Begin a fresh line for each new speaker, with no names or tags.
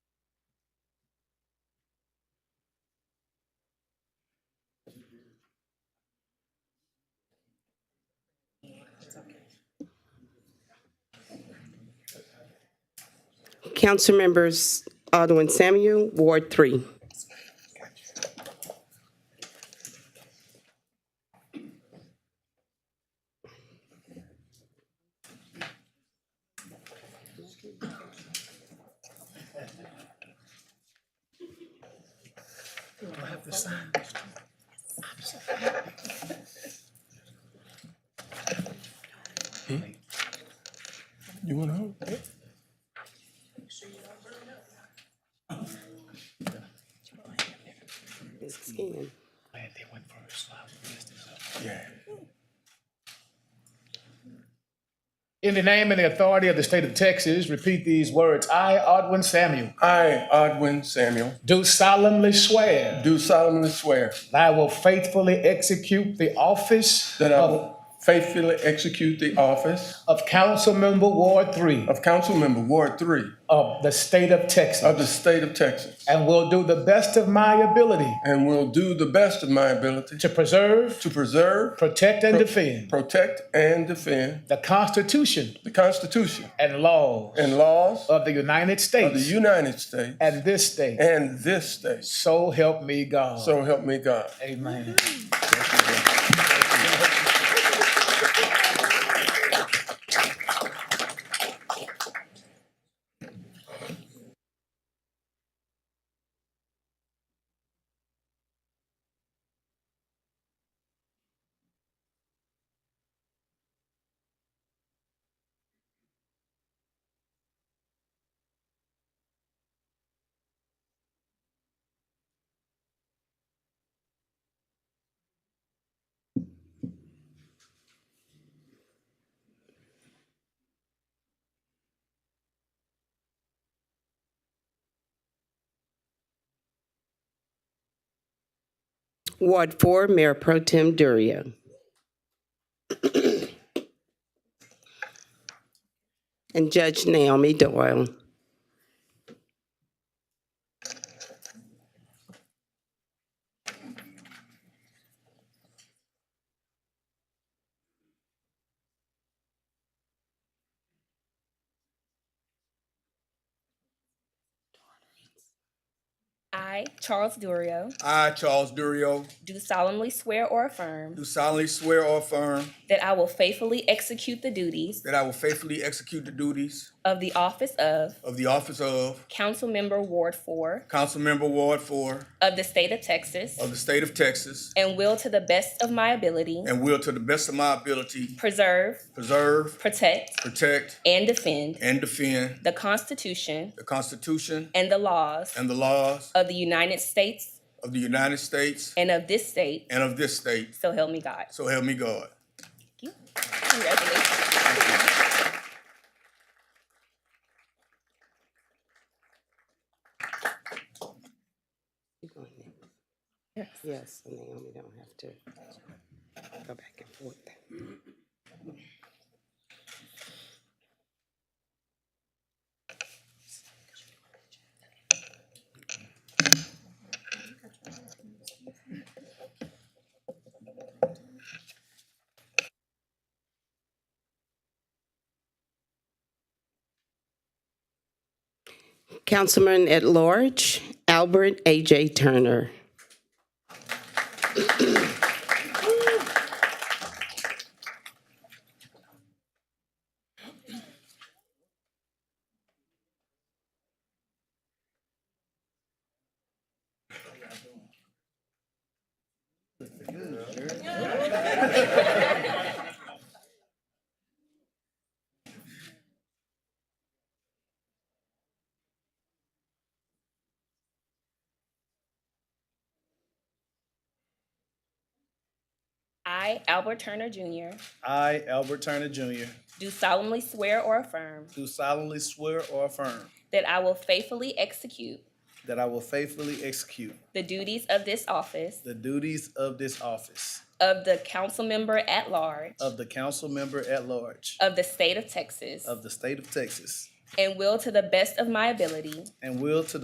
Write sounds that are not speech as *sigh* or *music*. Councilmembers Alderman Samuel, Ward Three.
You want to hold?
Ms. Skin.
Yeah.
In the name and the authority of the state of Texas, repeat these words. I, Odwin Samuel,
I, Odwin Samuel,
do solemnly swear
do solemnly swear
that I will faithfully execute the office
that I
of,
will faithfully execute the office
of council member Ward Three
of council member Ward Three
of the state of Texas
of the state of Texas
and will do the best of my ability
and will do the best of my ability
to preserve,
to preserve,
protect, and defend
protect, and defend
the Constitution
the Constitution
and laws
and laws
of the United
of the
States
United States
and this state.
and this state.
So help me God.
So help me God.
Amen.
Ward Four, Mayor Pro Tem Duria. *clears throat* And Judge Naomi Doyle.
I, Charles Durio,
I, Charles Durio,
do solemnly swear or affirm
do solemnly swear or affirm
that I will faithfully execute the duties
that I will faithfully execute the duties
of the office of
of the office of
Councilmember Ward Four
Councilmember Ward Four
of the state of Texas
of the state of Texas
and will to the best of my ability
and will to the best of my ability
preserve,
preserve,
protect,
protect,
and defend
and defend
the Constitution
the Constitution
and the laws
and the laws
of the United States
of the United States
and of this state.
and of this state.
So help me God.
So help me God.
Thank you. Congratulations.
Yes, Naomi don't have to go back and forth. Councilman at Large, Albert A.J. Turner.
I, Albert Turner Jr.,
I, Albert Turner Jr.,
do solemnly swear or affirm
do solemnly swear or affirm
that I will faithfully execute
that I will faithfully execute
the duties of this office
the duties of this office
of the council member at large
of the council member at large
of the state of Texas
of the state of Texas
and will to the best of my ability
and will to the